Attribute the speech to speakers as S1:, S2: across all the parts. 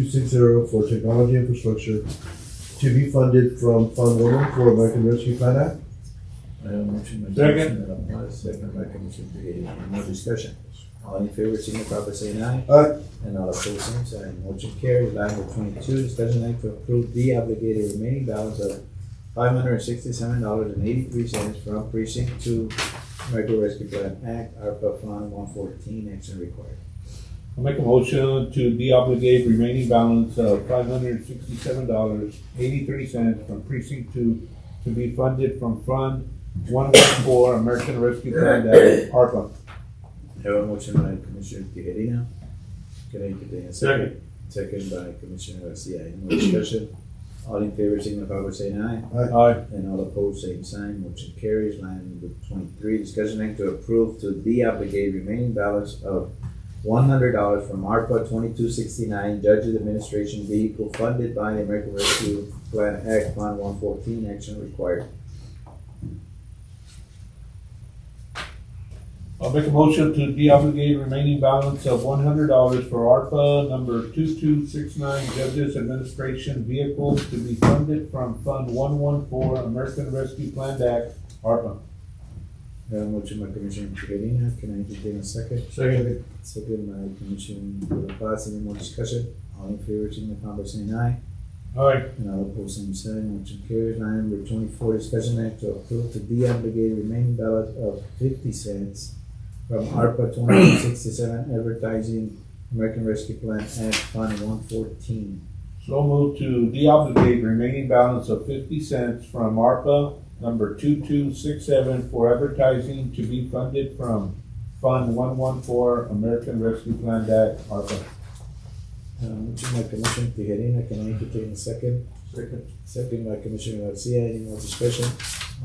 S1: 2260 for technology infrastructure to be funded from Fund 114 American Rescue Plan Act.
S2: I have a motion by
S3: Second.
S2: Commissioner Alvarez, second by Commissioner Tejeda. Any more discussion? All in favor, signify by saying aye.
S1: Aye.
S2: And all opposed, same sign. Motion carries. Line number twenty-two, discussion act to approve the obligated remaining balance of five hundred and sixty-seven dollars and eighty-three cents from precinct two American Rescue Plan Act, ARPA Fund one fourteen, action required.
S3: I'll make a motion to deobligate remaining balance of five hundred sixty-seven dollars, eighty-three cents from precinct two to be funded from Fund one one four American Rescue Plan Act, ARPA.
S2: I Have a motion by Commissioner Tejeda. Can I get a second? Second by Commissioner Garcia. Any more discussion? All in favor, signify by saying aye.
S3: Aye.
S2: And all opposed, same sign, motion carries. Line number twenty-three, discussion act to approve to deobligate remaining balance of one hundred dollars from ARPA twenty-two sixty-nine Judges Administration Vehicle funded by the American Rescue Plan Act Fund one fourteen, action required.
S3: I'll make a motion to deobligate remaining balance of one hundred dollars for ARPA number two-two-six-nine Judges Administration Vehicle to be funded from Fund one one four American Rescue Plan Act, ARPA.
S2: Uh, motion by Commissioner Trevino, can I entertain a second? Second. Second by Commissioner Paz, any more discussion? All in favor, signify by saying aye.
S3: Aye.
S2: And all opposed, same sign, motion carries. Line number twenty-four, discussion act to approve to deobligate remaining balance of fifty cents from ARPA twenty-one sixty-seven advertising American Rescue Plan Act Fund one fourteen.
S3: So moved to deobligate remaining balance of fifty cents from ARPA number two-two-six-seven for advertising to be funded from Fund one-one-four American Rescue Plan Act, ARPA.
S2: Uh, motion by Commissioner Tijerina, can I entertain a second?
S3: Second.
S2: Second by Commissioner Garcia, any more discussion?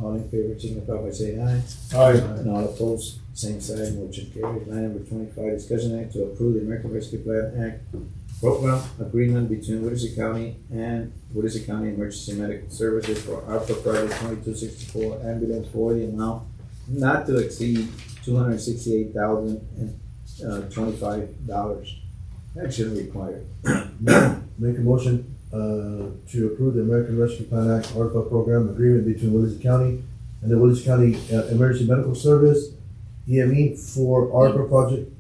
S2: All in favor, signify by saying aye.
S3: Aye.
S2: And all opposed, same sign, motion carried. Line number twenty-five, discussion act to approve the American Rescue Plan Act program agreement between Willacy County and Willacy County Emergency Medical Services for ARPA project twenty-two sixty-four ambulance for the amount not to exceed two hundred sixty-eight thousand and uh, twenty-five dollars. Action required.
S1: Make a motion uh, to approve the American Rescue Plan Act ARPA program agreement between Willis County and the Willis County uh, Emergency Medical Service, EME, for ARPA project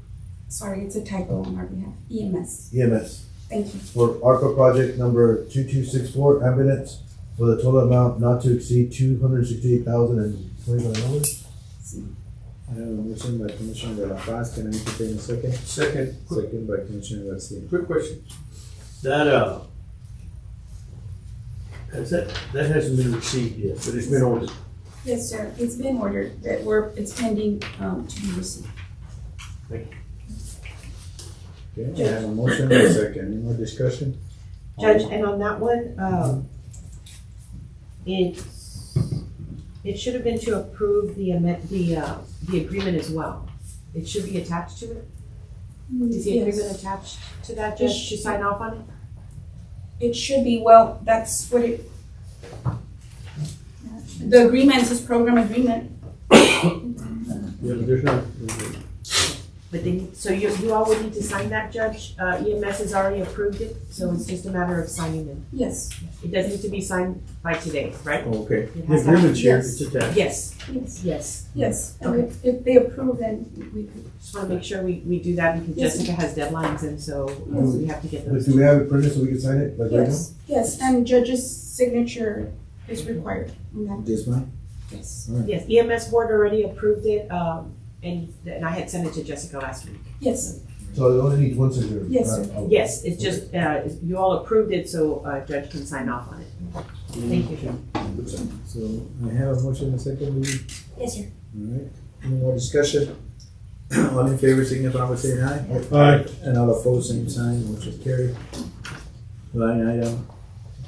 S4: Sorry, it's a typo on our behalf. EMS.
S1: EMS.
S4: Thank you.
S1: for ARPA project number two-two-six-four ambulance for the total amount not to exceed two hundred sixty-eight thousand and twenty-five dollars.
S2: I have a motion by Commissioner De La Paz, can I entertain a second?
S5: Second, quick,
S2: Second by Commissioner Garcia.
S5: quick question. That, uh, has that, that hasn't been received yet, but it's been ordered.
S4: Yes, sir. It's been ordered that we're, it's pending, um, to be received.
S2: Okay, I have a motion and a second, any more discussion?
S6: Judge, and on that one, um, it's, it should have been to approve the amend, the, uh, the agreement as well. It should be attached to it. Is the agreement attached to that, Judge, to sign off on it?
S4: It should be, well, that's what it. The agreement is program agreement.
S5: There- There's not, there's not-
S6: But then, so you, you all would need to sign that, Judge. Uh, EMS has already approved it, so it's just a matter of signing them.
S4: Yes,
S6: It does need to be signed by today, right?
S5: Oh, okay.
S6: It
S5: The
S6: has
S5: agreement's here,
S4: Yes.
S5: it's attached.
S6: Yes,
S4: yes,
S6: yes.
S4: yes. And if- if they approve, then we could.
S6: Just wanna make sure we, we do that because
S4: Yes.
S6: Jessica has deadlines and so uh,
S5: Oh.
S1: Yes.
S6: we have to get
S1: But
S6: those.
S1: do we have it printed so we can sign it? like right now?
S4: Yes, yes. And judge's signature is required on that.
S2: This one?
S4: Yes,
S6: Yes, EMS board already approved it, um, and, and I had sent it to Jessica last week.
S4: yes,
S1: So it only needs one signature.
S4: Yes, sir.
S1: right? Oh.
S6: Yes, it's just, uh, you all approved it, so, uh, judge can sign off on it. Thank you.
S2: So I have a motion and a second, Lee.
S4: yes, sir.
S2: Alright, any more discussion? All in favor, signify by saying aye.
S3: Aye.
S2: And all opposed, same sign, motion carried. Line item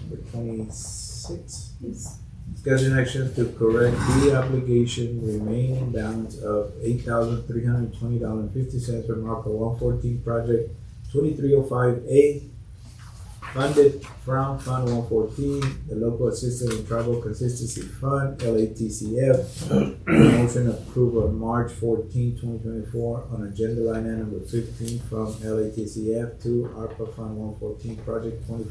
S2: number twenty-six.
S4: Yes.
S2: Discussion action to correct the obligation remaining balance of eight thousand three hundred twenty dollars and fifty cents from ARPA one fourteen project twenty-three oh five A funded from Fund one fourteen, the Local Assistance and Tribal Consistency Fund, LATCF. Motion approved on March 14, 2024, on agenda line item number fifteen from LATCF to ARPA Fund one fourteen, Project twenty